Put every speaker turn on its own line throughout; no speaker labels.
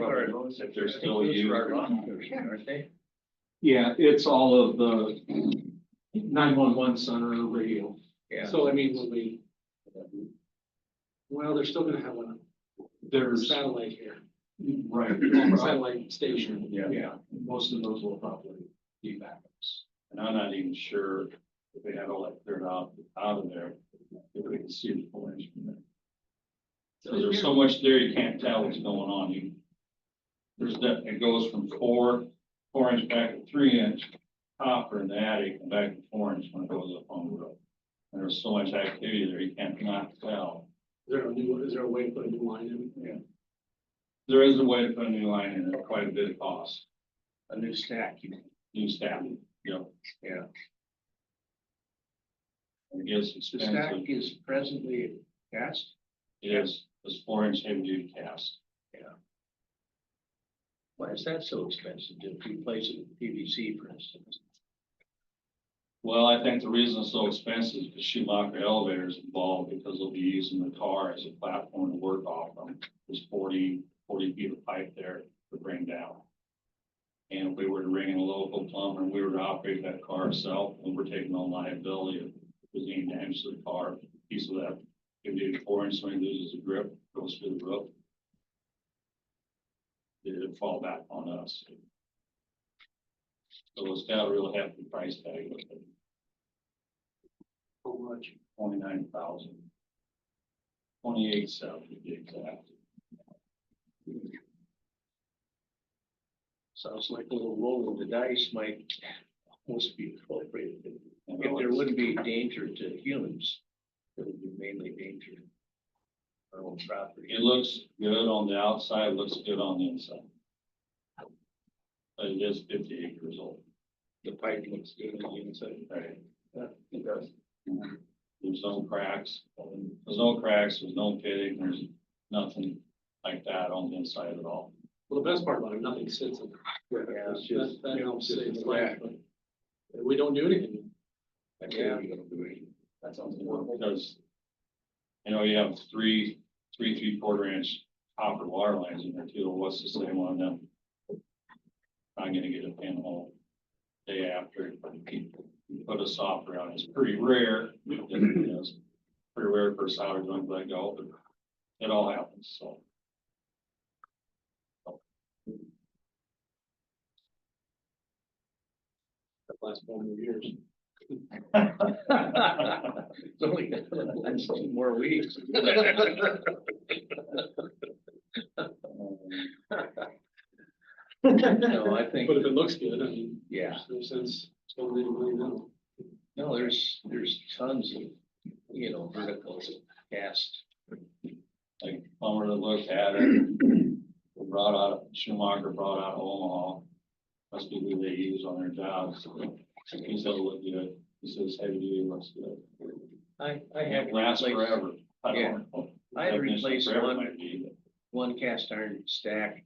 our loans if they're still used. Aren't they?
Yeah, it's all of the nine-one-one center radio.
Yeah.
So I mean, when we. Well, they're still gonna have one
There's,
satellite here,
right,
satellite station.
Yeah.
yeah, most of those will probably be backups.
And I'm not even sure if they had all that cleared out, out of there, if we can see the foliage from there. So there's so much there, you can't tell what's going on. You, there's that, it goes from four, four inch back to three inch copper in the attic and back to four inch when it goes up on the roof. And there's so much activity there, you can't not tell.
Is there a new, is there a way to put a new line in?
There is a way to put a new line in, at quite a bit of cost,
A new stack, you mean?
new staffing, you know.
Yeah.
It gets
The stack
expensive.
is presently cast.
Yes, it's four inch heavy duty cast.
Why is that so expensive to replace it with PVC, for instance?
Well, I think the reason it's so expensive is because Schumacher elevator is involved because they'll be using the car as a platform to work off from. There's 40 40 feet of pipe there to bring down. And if we were to ring in a local plumber and we were to operate that car ourselves, and we're taking on liability if there's any damage to the car, a piece of that. If the four inch swing loses a grip, goes through the roof. It'd fall back on us. So it's got a real hefty price tag with it
How much?
twenty-nine thousand. Twenty-eight seven to be exact.
Sounds like a little roll of the dice might almost be appropriate.
And
If there
it's-
wouldn't be danger to humans, it would be mainly danger. to Our own property.
It looks good on the outside, looks good on the inside. But it is fifty-eight years old.
The pipe looks good on the inside.
Right.
Yeah, it does.
There's no cracks, there's no cracks, there's no pitting, there's nothing like that on the inside at all.
Well, the best part about it, nothing sits in there.
Yeah, it's
That,
just-
that helps
just a
save the life. but We don't do anything.
I can't even agree.
That sounds important. Because, you know, you have three, three, three quarter inch copper wire lines in there too, what's the same on them? Not gonna get a pinhole day after, you put a softer on, it's pretty rare, it is, pretty rare for a solder joint to let go, but it all happens, so.
that Last four hundred years.
It's only, it's two more weeks. No, I think,
But if it looks good, I mean,
yeah.
there's no sense spending any money now.
No, there's, there's tons of, you know, verticals cast.
like plumber that looked at it. Brought out, Schumacher brought out Omaha. Must be who they use on their jobs. He said it looked good. He says heavy duty looks good.
I, I have
It lasts
replaced
forever. I don't know.
I had
Definition of
replaced
forever
one.
might be, but
one cast iron stack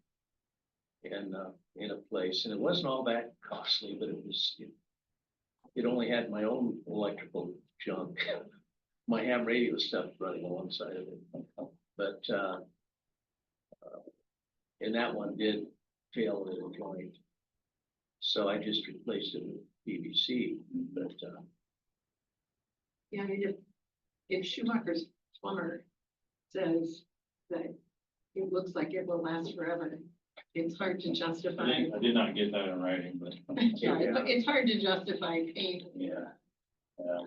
in, uh, in a place, and it wasn't all that costly, but it was, it- it only had my own electrical junk, my ham radio stuff running alongside of it, but, uh, uh, and that one did fail at a joint, so I just replaced it with PVC, but, uh,
Yeah, I mean, if, if Schumacher's plumber says that it looks like it will last forever, it's hard to
I
justify.
didn't- I did not get that in writing, but.
Yeah, it's- it's hard to justify paying.
yeah.
Yeah.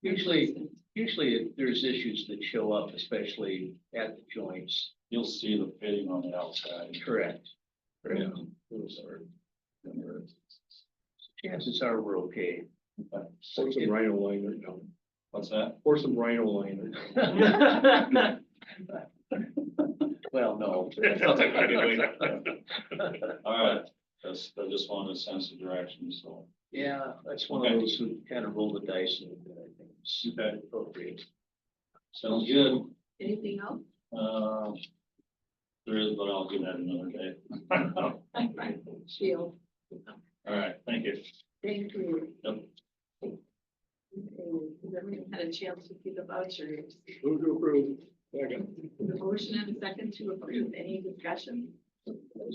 Usually, usually there's issues that show up, especially at the joints.
You'll see the fitting on the outside.
Correct.
Yeah.
Those are- Chances are we're okay.
Or some rhino liner,
What's that?
or some rhino liner.
Well, no.
All right. That's, I just wanted a sense of direction, so.
Yeah, that's one of those who kind of roll the dice and uh, I think it's
Okay.
appropriate.
Sounds good.
Anything else?
Uh, There is, but I'll do that another day.
Shield,
All right, thank you.
thank you.
Yep.
Okay, Has everyone had a chance to see the vouchers?
Move to approve. Second.
The motion and a second to approve, any discussion?